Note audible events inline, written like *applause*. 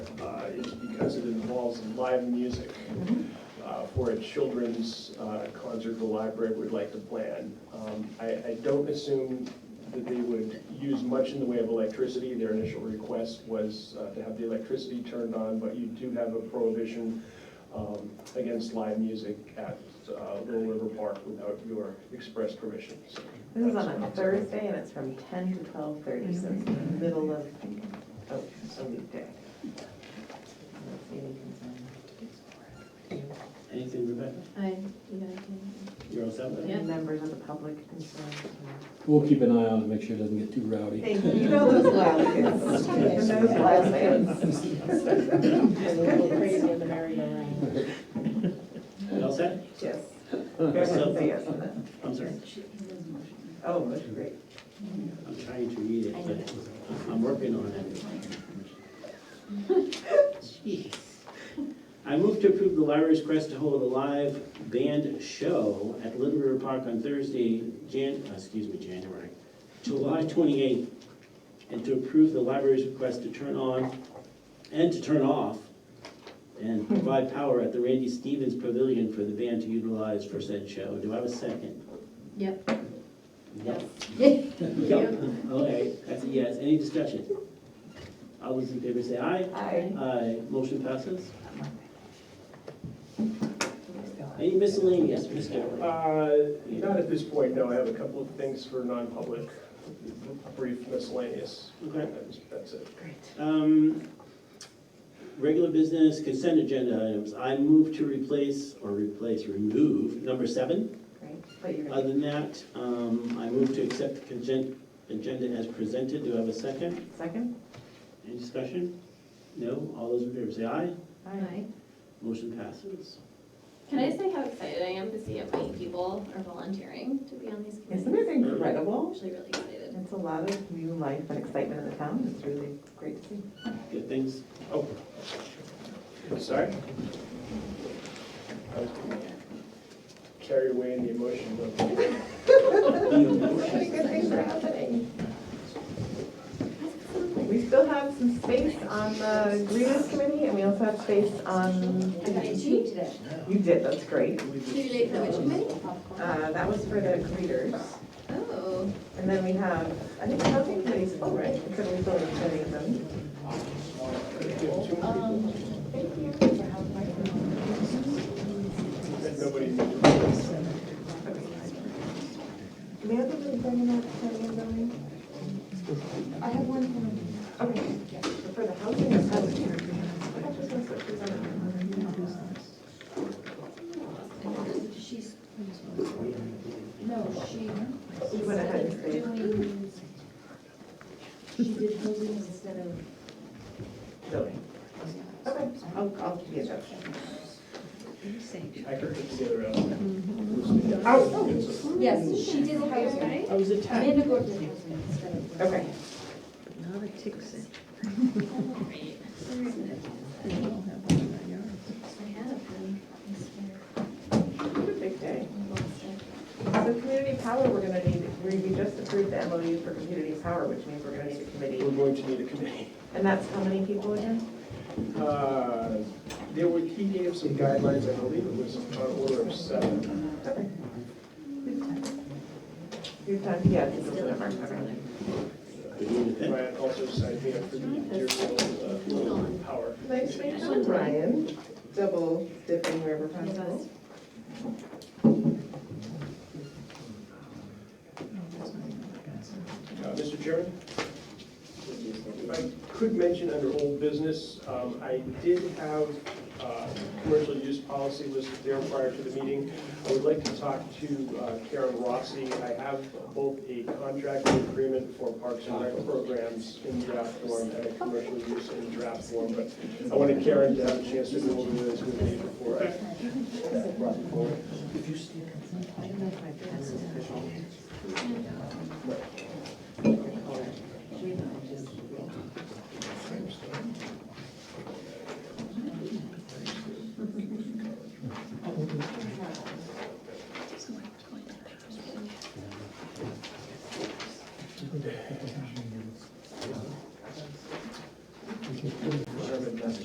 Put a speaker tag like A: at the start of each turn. A: uh, balls and live music
B: Mm-hmm.
A: uh, for a children's uh, concert the library would like to plan. Um, I, I don't assume that they would use much in the way of electricity. Their initial request was uh, to have the electricity turned on, but you do have a prohibition um, against live music at uh, Little River Park without your express permission. So
B: This is
A: that's what
B: on a
A: I'm saying.
B: Thursday and it's from ten to twelve thirty, so it's the middle of, oh, a weekday. I don't see any concern.
C: Anything, Rebecca?
D: I, yeah, I can.
C: You're all set with that?
D: Yeah.
B: Any members of the public concerned?
E: We'll keep an eye on it, make sure it doesn't get too rowdy.
B: Thank you. You know those loud kids. *laughs* Those loud kids.
F: And we go crazy in the merry-go-round.
C: You all set?
B: Yes. Yes,
C: So-
B: yes, yes.
C: I'm sorry,
B: Oh, that's great.
C: I'm trying to read it, but I'm working on it. Jeez. I move to approve the library's request to hold a live band show at Little River Park on Thursday, Jan, uh, excuse me, January, July twenty-eighth, and to approve the library's request to turn on and to turn off and provide power at the Randy Stevens Pavilion for the band to utilize for said show. Do I have a second?
D: *laughs* Yep.
C: Yep.
D: Yes.
C: Yep, okay, that's a yes. Any discussion? All those in favor say aye.
B: Aye.
C: Aye, motion passes. Any miscellaneous, Mr.?
A: Uh, Not at this point, no. I have a couple of things for non-public, brief miscellaneous.
C: Okay.
A: That's- That's it.
C: Um, Regular business consent agenda items. I move to replace, or replace, remove, number seven.
B: Great, but you're
C: Other
B: gonna,
C: than that, um, I move to accept the consent agenda as presented. Do I have a second?
B: second?
C: Any discussion? No? All those in favor say aye.
D: Hi.
C: Motion passes.
D: Can I say how excited I am to see how many people are volunteering to be on these committees?
B: Isn't it
D: I'm
B: incredible?
D: actually really excited.
B: It's a lot of new life and excitement in the town. It's really great to see.
C: Good things.
A: Oh, sorry. I was getting Carried away in the emotion, but
B: Good things are happening. We still have some space on the grievance committee, and we also have space on,
D: I got a cheat today.
B: you did, that's great.
D: Too late for which committee?
B: Uh, that was for the greeters.
D: Oh,
B: And then we have, I think, housing committees, oh, right, because we still have many of them.
A: um, nobody.
B: Do we have anything bringing up for the building?
G: I have one thing.
B: Okay, for the housing or housing? I thought this was what she was on.
G: She's, no, she.
B: You went ahead and said.
G: doing- She did housing instead of.
B: Building. Okay, I'll, I'll give you that.
A: I heard it together. out. Oh.
G: Yes, she did housing.
D: Oh.
F: I was attacked.
G: Amanda Gordon did housing instead of.
B: Okay.
D: great. I had a pen. I swear.
B: Big day.
D: I lost it.
B: So community power, we're gonna need, we we just approved the MOU for community power, which means we're gonna need a
A: We're
B: committee.
A: going to need a committee.
B: And that's how many people again?
A: Uh, There were, he gave some guidelines, I believe it was on order of seven.
B: You've done, yeah, this is the number, okay.
C: Good evening, then.
A: Ryan also signed me up for the Deerfield uh, Little Power.
B: Nice to meet you, Brian. Double dipping wherever possible.
A: Uh, Mr. Chairman? If I could mention under old business, um, I did have uh, commercial use policy listed there prior to the meeting. I would like to talk to uh, Karen Rossi. I have both a contract and agreement for parks and rec programs in draft form and a commercial use in draft form, but I wanted Karen to have a chance to go over this with me before I brought it forward.